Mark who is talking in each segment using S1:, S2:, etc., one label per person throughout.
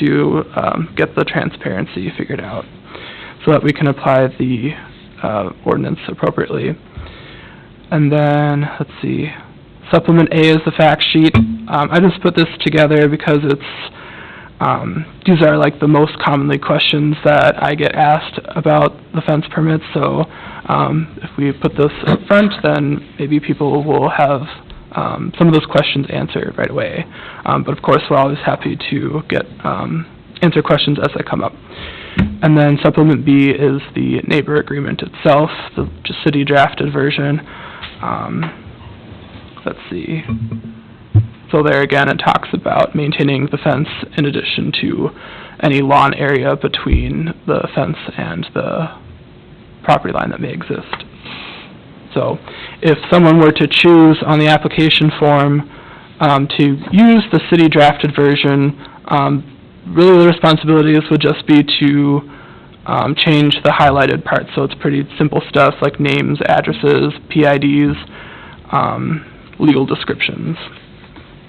S1: to um, get the transparency figured out so that we can apply the uh, ordinance appropriately. And then, let's see, supplement A is the fact sheet. Um, I just put this together because it's, um, these are like the most commonly questions that I get asked about the fence permits, so, um, if we put this up front, then maybe people will have, um, some of those questions answered right away. Um, but of course, we're always happy to get, um, answer questions as they come up. And then supplement B is the neighbor agreement itself, the j- city drafted version. Um, let's see. So there again, it talks about maintaining the fence in addition to any lawn area between the fence and the property line that may exist. So if someone were to choose on the application form um, to use the city drafted version, um, really the responsibilities would just be to um, change the highlighted parts. So it's pretty simple stuff like names, addresses, PIDs, um, legal descriptions.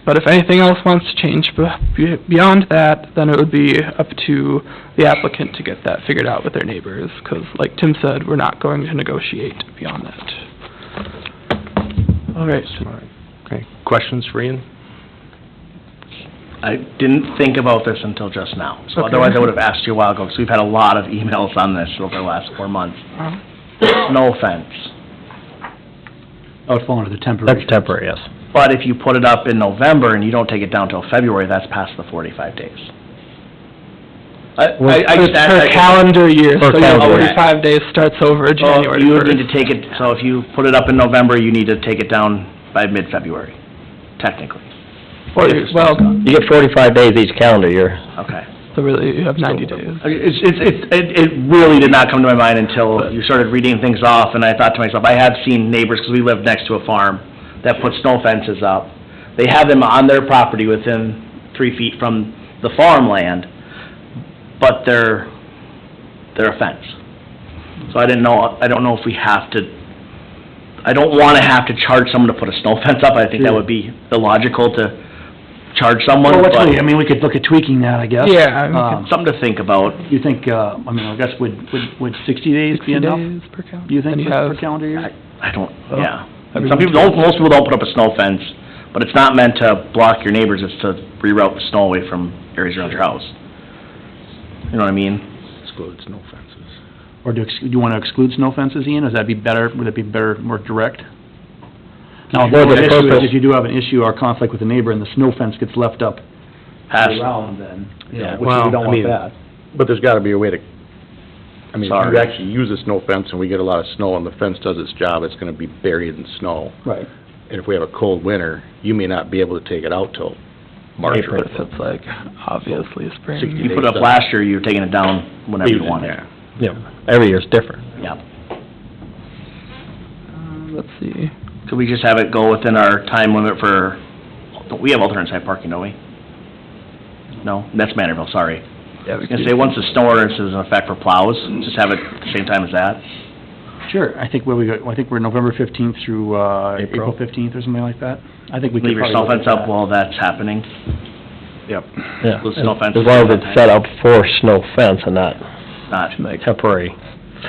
S1: But if anything else wants to change be- be- beyond that, then it would be up to the applicant to get that figured out with their neighbors, because like Tim said, we're not going to negotiate beyond that. All right,
S2: Okay, questions for Ian?
S3: I didn't think about this until just now, so
S2: Okay.
S3: otherwise I would have asked you a while ago, because we've had a lot of emails on this over the last four months.
S1: Uh-huh.
S3: No offense,
S4: That would fall under the temporary.
S2: That's temporary, yes.
S3: but if you put it up in November and you don't take it down till February, that's past the forty-five days. I, I, I
S1: Per
S3: just asked
S1: per
S3: that-
S1: calendar year, so
S2: Per
S1: your
S3: calendar year.
S1: forty-five days starts over
S3: So
S1: January
S3: Oh, you would
S1: first.
S3: need to take it, so if you put it up in November, you need to take it down by mid-February, technically.
S1: Or,
S3: if it's
S1: well,
S3: done.
S2: You get forty-five days each calendar year.
S3: Okay.
S1: so really, you have ninety days.
S3: It's, it's, it's- it, it really did not come to my mind until you started reading things off, and I thought to myself, I have seen neighbors, because we live next to a farm, that put snow fences up. They have them on their property within three feet from the farmland, but they're, they're a fence. So I didn't know, I don't know if we have to, I don't wanna have to charge someone to put a snow fence up, I think that would be illogical to charge someone,
S4: Well,
S3: but
S4: what's really, I mean, we could look at tweaking that, I guess.
S1: Yeah, I mean,
S4: Um,
S3: something to think about.
S4: You think, uh, I mean, I guess would, would, would sixty days
S1: 60
S4: be enough?
S1: days per calendar.
S4: Do you think
S1: Then
S4: for
S1: have-
S4: per calendar year?
S3: I don't, yeah.
S1: Every
S3: Some people don't, most people don't put up a snow fence, but it's not meant to block your neighbors, it's to reroute the snow away from areas around your house. You know what I mean?
S2: Excludes no fences.
S4: Or do, you ex- do you wanna exclude snow fences, Ian? Is that be better, would it be better, more direct? Now,
S2: Well, the
S4: the issue is
S2: purpose-
S4: if you do have an issue or conflict with a neighbor and the snow fence gets left up
S3: Pass,
S4: around then, you know,
S3: Yeah.
S4: which we don't
S2: Well, Oh, I
S4: want
S2: mean-
S4: that.
S5: But there's gotta be a way to, I mean, if
S3: Sorry.
S5: you actually use a snow fence and we get a lot of snow and the fence does its job, it's gonna be buried in snow.
S4: Right.
S5: And if we have a cold winter, you may not be able to take it out till March or
S1: But if it's like, obviously, spring.
S5: 60
S3: you put it up last year, you're taking it down whenever you want it.
S2: Yeah, every year's different.
S3: Yeah.
S1: Um, Let's see.
S3: Could we just have it go within our time limit for, we have alternate side parking, don't we? No, that's Manorville, sorry.
S1: Yeah, we
S3: I was gonna say, once the snow ordinance is in effect for plows, just have it the same time as that.
S4: Sure, I think where we go, I think we're November fifteenth through, uh,
S2: April.
S4: April fifteenth or something like that. I think we could
S3: Leave your snow
S4: probably look at
S3: fence up
S4: that.
S3: while that's happening.
S5: Yep.
S2: Yeah.
S3: Those snow fences
S2: As long as
S3: are
S2: it's set up for snow fence and not
S3: Not,
S2: a temporary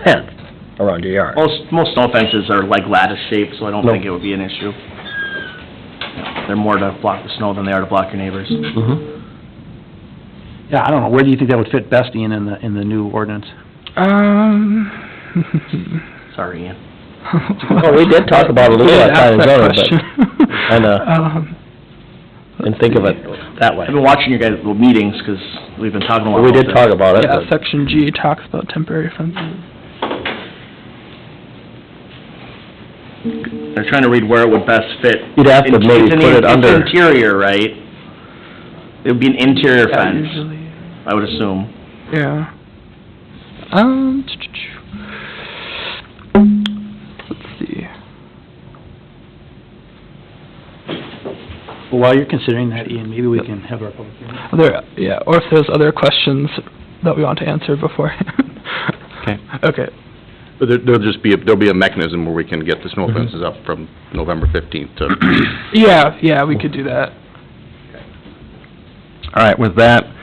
S2: fence around your yard.
S3: Most, most snow fences are like lattice shaped, so I don't
S2: No.
S3: think it would be an issue. They're more to block the snow than they are to block your neighbors.
S2: Mhm.
S4: Yeah, I don't know, where do you think that would fit best, Ian, in the, in the new ordinance?
S1: Um.
S3: Sorry, Ian.
S2: Well, we did talk about it a little at
S1: Yeah,
S2: Town and Zoning,
S1: that's
S2: but
S1: that question.
S2: I know.
S1: Um,
S2: And think of it that way.
S3: I've been watching your guys' little meetings, 'cause we've been talking a lot
S2: We
S3: about
S2: did
S3: this.
S2: talk about it,
S1: Yeah,
S2: but
S1: section G talks about temporary fences.
S3: They're trying to read where it would best fit.
S2: you'd have to
S3: It's
S2: maybe
S3: an-
S2: put it under,
S3: It's interior, right? It would be an interior
S1: Yeah,
S3: fence,
S1: usually,
S3: I would assume.
S1: Yeah. Um, let's see.
S4: Well, while you're considering that, Ian, maybe we can have our public hearing.
S1: Are There, yeah, or if there's other questions that we want to answer beforehand.
S2: Okay.
S1: Okay,
S5: But there, there'll just be, a- there'll be a mechanism where we can get the snow
S2: Mm-hmm.
S5: fences up from November fifteenth to
S1: yeah, yeah, we could do that.
S6: All right, with that,